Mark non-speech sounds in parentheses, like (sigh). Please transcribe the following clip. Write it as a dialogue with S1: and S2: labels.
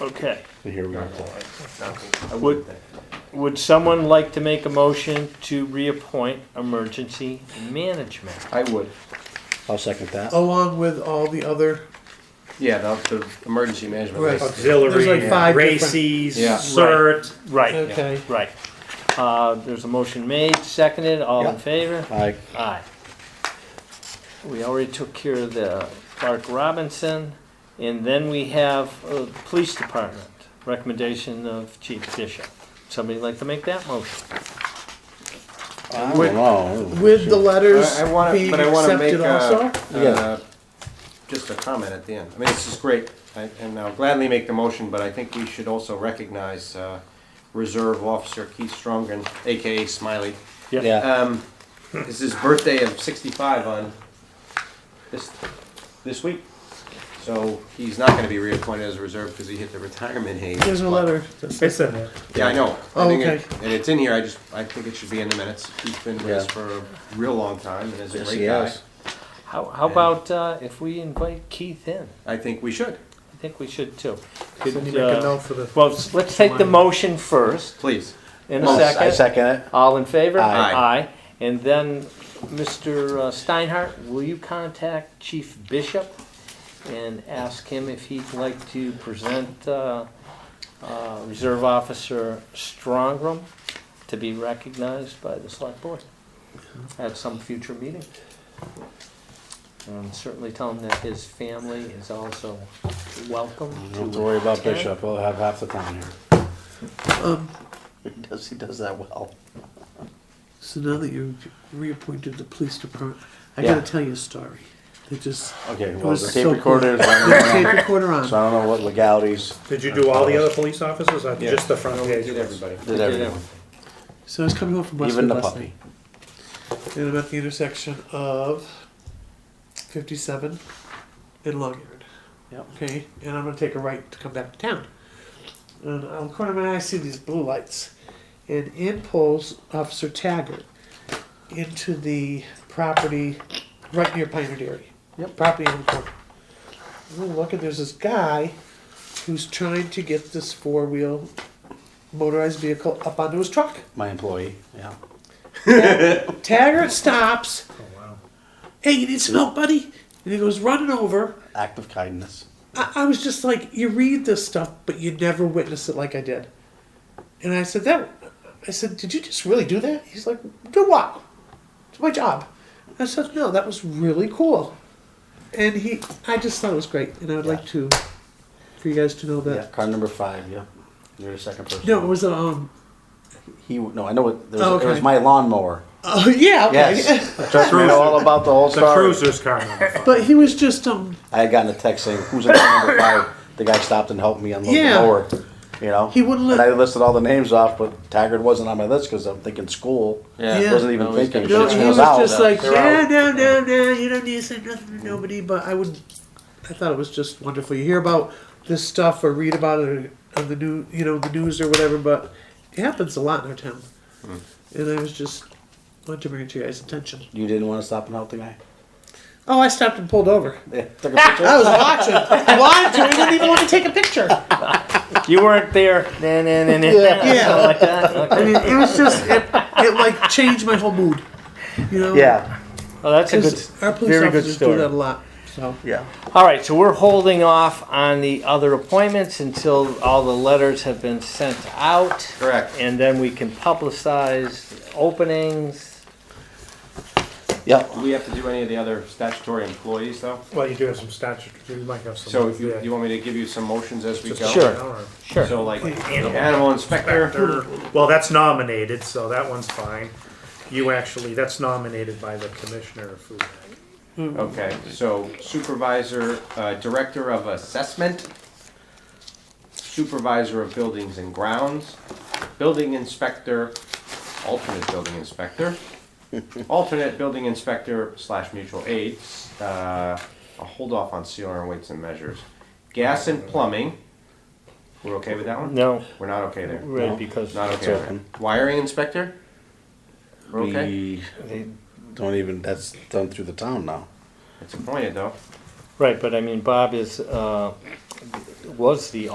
S1: Okay.
S2: And here we are.
S1: Would, would someone like to make a motion to reappoint emergency management?
S3: I would.
S2: I'll second that.
S4: along with all the other.
S3: Yeah, the, the emergency management.
S4: Right.
S3: list.
S4: There's like
S5: Auxiliary,
S4: five
S5: Races,
S3: Yeah.
S5: CERT.
S1: Right,
S4: Okay.
S1: right. Uh, there's a motion made, seconded, all in
S2: Yeah.
S1: favor?
S2: Aye.
S1: Aye. We already took care of the Clark Robinson, and then we have uh, Police Department, recommendation of Chief Bishop. Somebody like to make that motion?
S2: I
S4: With-
S2: don't know.
S4: With the letters
S3: I- I wanna-
S4: being
S3: but I wanna make,
S4: accepted
S3: uh,
S4: also?
S2: Yeah.
S3: Uh, Just a comment at the end. I mean, this is great, I- and I'll gladly make the motion, but I think we should also recognize uh, Reserve Officer Keith Strongen, AKA Smiley.
S2: Yeah,
S3: Um, It's his birthday of 65 on this, this week. So he's not going to be reappointed as a reserve because he hit the retirement age.
S4: There's a
S3: but-
S4: letter.
S5: It's in there.
S3: Yeah, I know. I
S4: Oh,
S3: think
S4: okay.
S3: it- And it's in here, I just, I think it should be in the minutes. He's been with us
S2: Yeah.
S3: for a real long time and is a
S2: Yes,
S3: great
S2: he
S3: guy.
S2: has.
S1: How, how about uh, if we invite Keith in?
S3: I think we should,
S1: I think we should too. Could,
S4: Somebody make
S1: uh,
S4: a note for the.
S1: Well, s- let's take the motion first,
S3: please.
S1: in a
S3: Motion.
S2: I
S1: second.
S2: second it.
S1: All in favor?
S3: Aye.
S1: And then, Mr. uh, Steinhardt, will you contact Chief Bishop and ask him if he'd like to present uh, uh, Reserve Officer Strongram to be recognized by the Select Board at some future meeting? And certainly tell him that his family is also welcome to.
S2: You Don't have to worry about
S1: attend.
S2: Bishop, he'll have half the town here.
S4: Um,
S2: He does, he does that well.
S4: so now that you reappointed the police department, I
S2: Yeah.
S4: gotta tell you a story. It just.
S2: Okay,
S4: It
S2: well,
S4: was
S2: the
S4: so
S2: tape
S4: cool.
S2: recorder is on
S4: Put the (laughs)
S2: now,
S4: tape recorder on.
S2: so I don't know what legalities
S5: Did you do all the other police officers or
S3: Yeah.
S5: just the front page?
S3: Did everybody.
S2: did
S1: Yeah.
S2: everyone,
S4: So I was coming home from Westwood
S2: even the
S4: last
S2: puppy.
S4: night, and I'm at the intersection of 57 and Long Yard.
S2: Yep.
S4: Okay, and I'm gonna take a right to come back to town. And on the corner of my eye, I see these blue lights, and in pulls Officer Taggart into the property right near Pioneer Dairy. Yep. Property on the corner. Oh, And I'm looking, there's this guy who's trying to get this four-wheel motorized vehicle up onto his truck.
S2: My employee, yeah.
S4: Taggart stops.
S5: Oh, wow.
S4: Hey, you need some help, buddy? And he goes running over.
S2: Act of kindness.
S4: I, I was just like, you read this stuff, but you never witness it like I did. And I said, that. I said, did you just really do that? He's like, do what? It's my job. I said, no, that was really cool. And he, I just thought it was great, and I would like to, for you guys to know
S2: Yeah,
S4: that.
S2: card number five, yeah. You're the second person.
S4: No, it was um.
S2: He, no, I know, it there
S4: Oh,
S2: was, it
S4: okay.
S2: was my lawnmower.
S4: Oh yeah, okay.
S2: Yes, trust me, (laughs) I know all about the whole
S5: The
S2: story.
S5: cruiser's car number
S4: (laughs)
S5: five.
S4: But he was just um.
S2: I had gotten a text saying, who's in car number five? The guy stopped and helped me unload
S4: Yeah.
S2: the mower, you know?
S4: He wouldn't let-
S2: And I listed all the names off, but Taggart wasn't on my list, cause I'm thinking school.
S4: Yeah.
S2: Wasn't even
S3: No, he's
S2: thinking.
S3: got-
S4: No,
S2: Shit
S4: he
S2: goes
S4: was
S2: out.
S4: just
S2: Yeah.
S4: like,
S3: They're
S4: yeah,
S3: out.
S4: no, no, no, you don't need to say nothing to nobody. But I would, I thought it was just wonderful. You hear about this stuff or read about it on the new, you know, the news or whatever, but it happens a lot in our town. And I was just wanted to bring it to your guys' attention.
S2: You didn't wanna stop and help the guy? (laughs)
S4: Oh, I stopped and pulled over.
S2: Yeah,
S4: (laughs)
S2: Took a picture?
S4: I was watching. I wanted to. I didn't even want to take a picture.
S1: You weren't there. Nah, nah, nah, nah, nah,
S4: Yeah.
S1: something like that. Okay.
S4: I mean, it was just it, it like changed my whole mood. You know.
S2: Yeah.
S1: Well, that's a
S4: 'Cause
S1: good,
S4: our police
S1: very good
S4: officers
S1: story.
S4: do that a lot. So.
S2: Yeah.
S1: All right, so we're holding off on the other appointments until all the letters have been sent out.
S3: Correct.
S1: And then we can publicize openings.
S2: Yep.
S3: Do we have to do any of the other statutory employees though?
S5: Well, you do have some statute, you might have some.
S3: So if you,
S5: yeah.
S3: you want me to give you some motions as we
S5: Just
S3: go?
S5: a
S1: Sure.
S5: general.
S1: Sure.
S3: So like animal inspector,
S5: Inspector. Well, that's nominated, so that one's fine. You actually, that's nominated by the commissioner of food.
S3: okay, so supervisor, uh, director of assessment, supervisor of buildings and grounds, building inspector, alternate building inspector, alternate building inspector slash mutual aid, uh, I'll hold off on sealer and weights and measures. Gas and plumbing, we're okay with that one?
S1: No,
S3: We're not okay there.
S1: right, because
S3: Not
S2: It's
S3: okay. there.
S2: open.
S3: Wiring inspector? We're okay?
S2: We don't even, that's done through the town now.
S3: It's appointed though.
S4: Oh,
S1: right, but I mean, Bob is uh, was the.